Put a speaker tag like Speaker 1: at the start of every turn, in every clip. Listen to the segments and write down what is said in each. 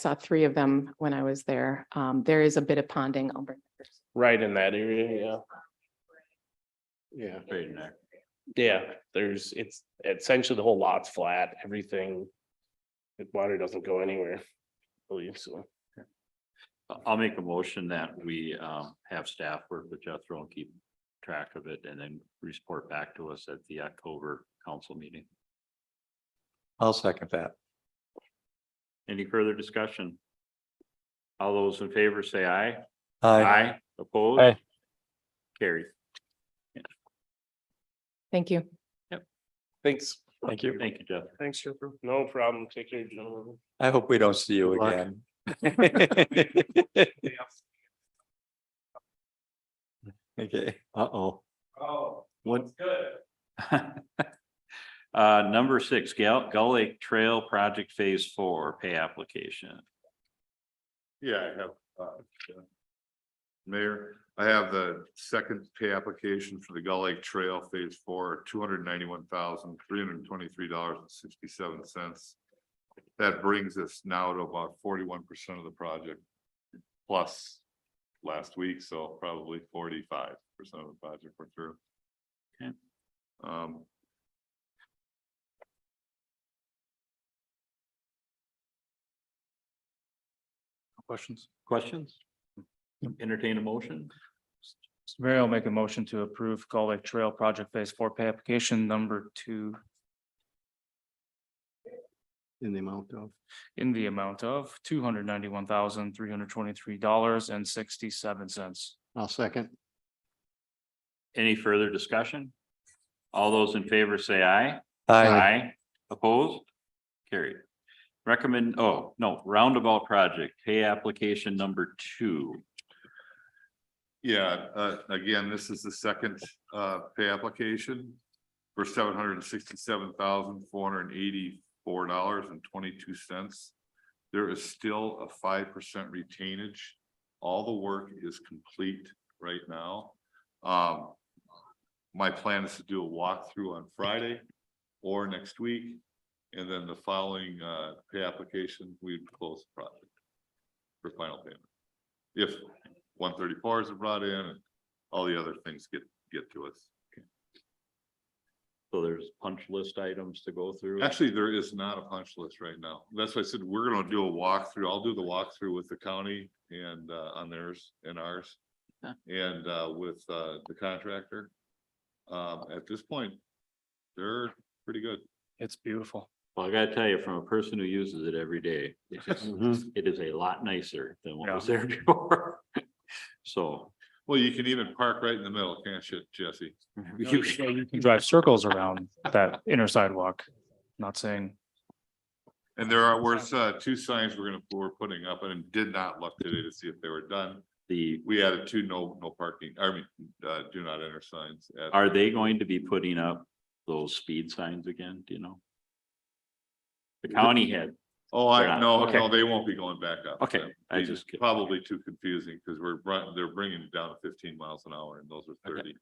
Speaker 1: saw three of them when I was there. Um, there is a bit of ponding. I'll bring-
Speaker 2: right in that area, yeah. Yeah.
Speaker 3: Right in there.
Speaker 2: Yeah, there's, it's essentially the whole lot's flat, everything. The water doesn't go anywhere. I Believe so.
Speaker 3: I- I'll make a motion that we um have staff work with Jethro and keep track of it and then report back to us at the October council meeting.
Speaker 4: I'll second that.
Speaker 3: Any further discussion? All those in favor say aye.
Speaker 4: Aye.
Speaker 3: Aye. Opposed?
Speaker 5: Aye.
Speaker 3: Carried.
Speaker 1: Thank you.
Speaker 2: Thanks.
Speaker 4: Thank you.
Speaker 3: Thank you, Jeff.
Speaker 2: Thanks, Jethro. No problem. Take care, gentlemen.
Speaker 4: I hope we don't see you
Speaker 3: Good luck.
Speaker 4: again. Okay.
Speaker 3: Uh-oh.
Speaker 2: Oh,
Speaker 3: What,
Speaker 2: good.
Speaker 3: Uh, number six, Gal, Gull Lake Trail Project Phase Four Pay Application.
Speaker 6: Yeah, I have. uh, yeah. Mayor, I have the second pay application for the Gull Lake Trail Phase Four, two hundred ninety-one thousand, three hundred twenty-three dollars and sixty-seven cents. That brings us now to about forty-one percent of the project. Plus last week, so probably forty-five percent of the project we're through.
Speaker 3: Okay.
Speaker 6: Um,
Speaker 3: Questions? Questions? Entertain a motion?
Speaker 5: Mr. Mayor, I'll make a motion to approve Gull Lake Trail Project Phase Four Pay Application Number Two
Speaker 7: in the amount of.
Speaker 5: in the amount of two hundred ninety-one thousand, three hundred twenty-three dollars and sixty-seven cents.
Speaker 7: I'll second.
Speaker 3: Any further discussion? All those in favor say aye.
Speaker 4: Aye.
Speaker 3: Opposed? Carried. Recommend, oh, no, roundabout project, pay application number two.
Speaker 6: Yeah, uh, again, this is the second, uh, pay application for seven hundred and sixty-seven thousand, four hundred and eighty-four dollars and twenty-two cents. There is still a five percent retainage. All the work is complete right now. Um, my plan is to do a walkthrough on Friday or next week. And then the following, uh, pay application, we'd close the project for final payment. If one thirty-fours are brought in and all the other things get, get to us.
Speaker 3: So there's punch list items to go through.
Speaker 6: Actually, there is not a punch list right now. That's why I said we're gonna do a walkthrough. I'll do the walkthrough with the county and, uh, on theirs and ours.
Speaker 3: Yeah.
Speaker 6: And, uh, with, uh, the contractor. Um, at this point, they're pretty good.
Speaker 5: It's beautiful.
Speaker 3: Well, I gotta tell you, from a person who uses it every day, it's just-
Speaker 6: Mm-hmm.
Speaker 3: it is a lot nicer than what was there before. So.
Speaker 6: Well, you can even park right in the middle, can't you, Jesse?
Speaker 3: you-
Speaker 5: You can drive circles around that inner sidewalk. Not saying,
Speaker 6: And there are, where's, uh, two signs we're gonna, we're putting up and did not look today to see if they were done.
Speaker 3: The,
Speaker 6: We added two no, no parking, I mean, uh, do not enter signs at
Speaker 3: are they going to be putting up those speed signs again, do you know? The county had,
Speaker 6: Oh,
Speaker 3: They're
Speaker 6: I,
Speaker 3: not.
Speaker 6: no,
Speaker 3: Okay.
Speaker 6: no, they won't be going back up.
Speaker 3: Okay,
Speaker 6: That'd
Speaker 3: I
Speaker 6: be
Speaker 3: just kid-
Speaker 6: Probably too confusing because we're, br- they're bringing it down to fifteen miles an hour and those are
Speaker 3: Okay.
Speaker 6: thirty.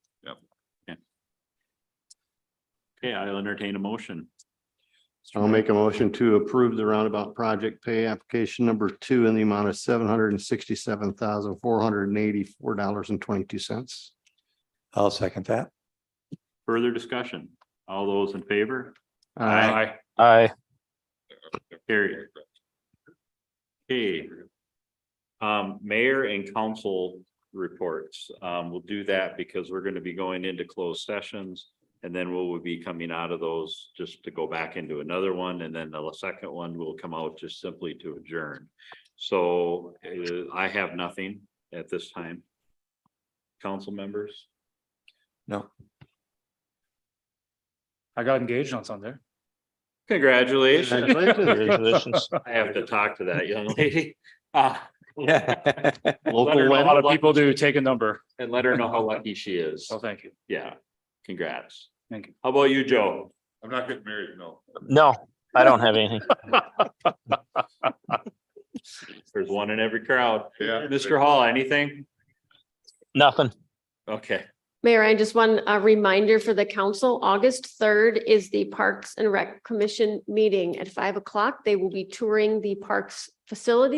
Speaker 3: okay, I'll entertain a motion.
Speaker 7: I'll make a motion to approve the roundabout project pay application number two in the amount of seven hundred and sixty-seven thousand, four hundred and eighty-four dollars and twenty-two cents.
Speaker 4: I'll second that.
Speaker 3: Further discussion, all those in favor?
Speaker 7: I
Speaker 5: I, I,
Speaker 3: Carried. Okay. Um, mayor and council reports, um, we'll do that because we're gonna be going into closed sessions. And then we'll be coming out of those just to go back into another one, and then the second one will come out just simply to adjourn. So, uh, I have nothing at this time. Council members?
Speaker 4: No.
Speaker 5: I got engaged on Sunday.
Speaker 3: Congratulations,
Speaker 7: Congratulations.
Speaker 3: I have to talk to that young lady. Uh,
Speaker 4: Yeah.
Speaker 5: Let her
Speaker 7: Local
Speaker 5: know A lot
Speaker 7: wedding.
Speaker 5: of people do take a number.
Speaker 3: and let her know how lucky she is.
Speaker 5: So thank you.
Speaker 3: Yeah, congrats.
Speaker 5: Thank you.
Speaker 3: How about you, Joe?
Speaker 6: I'm not getting married, no.
Speaker 8: No, I don't have anything.
Speaker 3: There's one in every crowd.
Speaker 6: Yeah.
Speaker 3: Mr. Hall, anything?
Speaker 8: Nothing.
Speaker 3: Okay.
Speaker 9: Mayor, I just want a reminder for the council, August third is the Parks and Rec Commission meeting at five o'clock. They will be touring the parks facility